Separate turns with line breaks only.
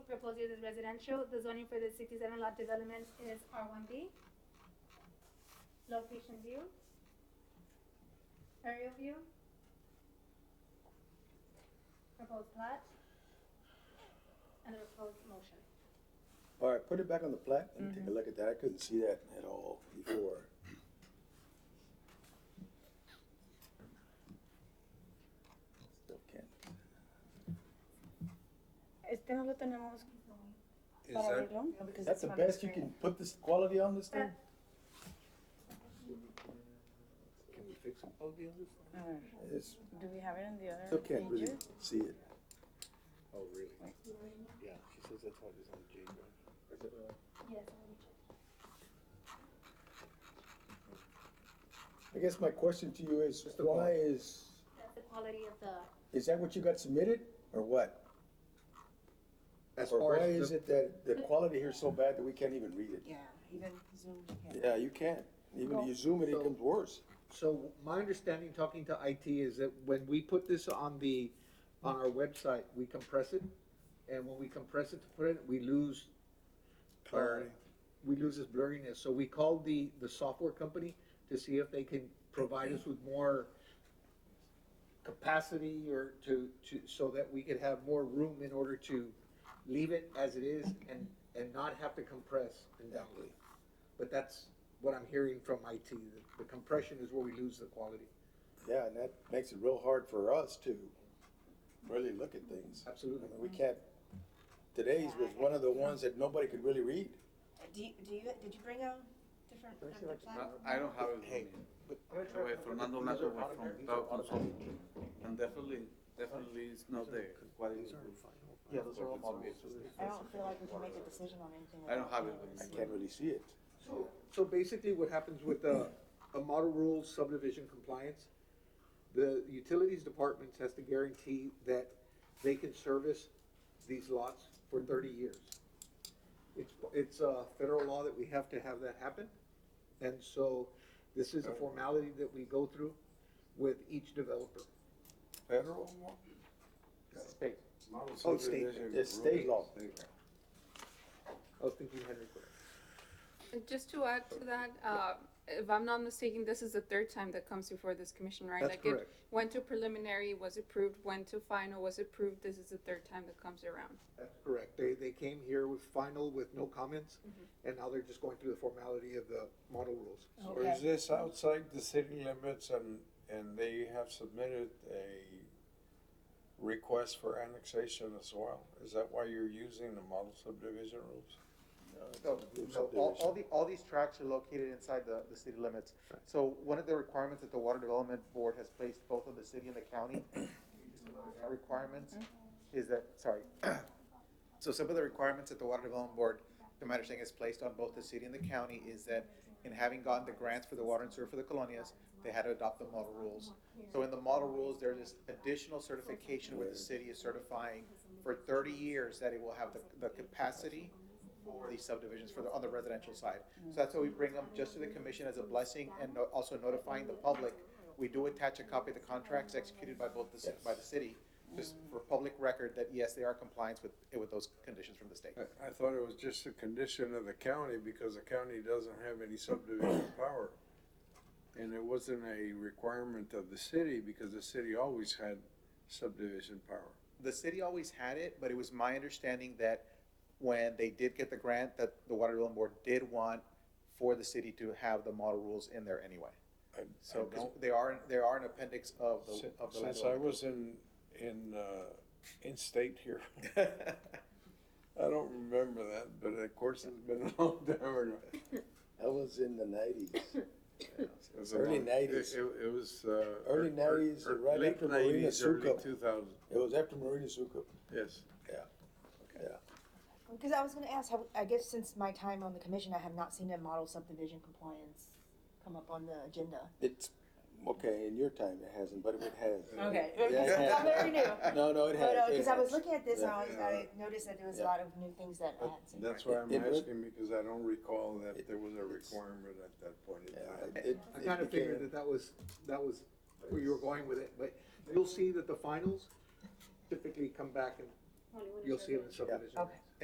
proposed use is residential, the zoning for this sixty-seven lot development is R one B. Location view. Aerial view. Proposed plat. And the proposed motion.
All right, put it back on the plat, let me take a look at that, I couldn't see that at all before. Still can't.
Este no lo tenemos
Is
para
that,
verlo. because
Is that
it's
the
not
best you
expired.
can put this quality on this thing?
can we fix all the others?
A ver,
It's,
do we have it on the other
still can't really
pages?
see it.
Oh, really? Yeah, she says that's why it's on the J drive.
Yes, I will check.
I guess my question to you is, why is,
That's the quality of the,
is that what you got submitted, or what?
As
Or
far
why
as,
is
the-
it that the quality here is so bad that we can't even read it?
Yeah, even Zoom.
Yeah,
yeah.
you can't, even if you zoom it, it
So-
comes worse.
so my understanding, talking to IT, is that when we put this on the, on our website, we compress it. And when we compress it to put it, we lose. uh,
Clarity.
We lose this blurriness. So we called the, the software company to see if they can provide us with more capacity or to, to, so that we could have more room in order to leave it as it is and, and not have to compress and download. But that's what I'm hearing from IT, that the compression is where we lose the quality.
Yeah, and that makes it real hard for us to really look at things.
Absolutely.
I mean, We can't, today's was one of the ones that nobody could really read.
Do you, do you, did you bring a different? uh, plan?
I, I don't have it with me. Anyway, Fernando Nato was from Dow Consulting, and definitely, definitely it's not there. What is Yeah, those are all
I don't feel like we can make a decision on anything.
I
without
don't have it
I
with me.
can't really see it.
So, so basically what happens with a, a model rule subdivision compliance, the utilities department has to guarantee that they can service these lots for thirty years. It's, it's a federal law that we have to have that happen. And so this is a formality that we go through with each developer.
Federal
State.
Oh, state, it's state law.
I was thinking Henry Clay.
And Just to add to that, uh, if I'm not mistaken, this is the third time that comes before this commission, right?
That's
Like it
correct.
Went to preliminary, was approved, went to final, was approved, this is the third time that comes around.
That's correct. They, they came here with final with no comments, and now they're just going through the formality of the model rules.
So is this outside the city limits and, and they have submitted a request for annexation as well? Is that why you're using the model subdivision rules?
No,
Group
no, all, all
subdivision.
the, all these tracks are located inside the, the city limits. So one of the requirements that the Water Development Board has placed both on the city and the county, our requirements, is that, sorry. So some of the requirements that the Water Development Board, to my understanding, has placed on both the city and the county is that in having gotten the grants for the water and sewer for the colonias, they had to adopt the model rules. So in the model rules, there's this additional certification where the city is certifying for thirty years that it will have the, the capacity for these subdivisions for the, on the residential side. So that's why we bring them just to the commission as a blessing and no- also notifying the public. We do attach a copy of the contracts executed by both the, ci- by the city, just for public record that yes, they are compliance with, with those conditions from the state.
I, I thought it was just a condition of the county because the county doesn't have any subdivision power. And it wasn't a requirement of the city because the city always had subdivision power.
The city always had it, but it was my understanding that when they did get the grant, that the Water Development Board did want for the city to have the model rules in there anyway.
I- I
So, 'cause
don't-
they are, they are an appendix of the,
Sin-
of the. land
Since I
development.
was in, in, uh, in state here, I don't remember that, but of course it's been a long time ago.
That was in the nineties.
It was a
Early
long-
90s.
It, it- it was, uh.
Early
er-
90s,
er-
right
late
after Marina
90s, early
Suco.
2000,
It was after Marina Suco,
yes.
yeah, yeah.
Because I was gonna ask, have- I guess since my time on the commission, I have not seen a model subdivision compliance come up on the agenda.
It's, okay, in your time it hasn't, but it has.
Okay.
Yeah, it has.
I'm very new.
No, no, it has.
But, uh,
it
cause I was
has.
looking at this, and I was,
Yeah.
I noticed that there was a
Yeah.
lot of new things that I hadn't seen.
That's why I'm
It- it-
asking because I don't recall that there was a
it's-
requirement at that point in
Yeah,
time.
it- it-
I
it
kind of figured
became-
that that was, that was where you were going with it, but you'll see that the finals typically come back and
only one.
you'll see it in subdivision.
Okay.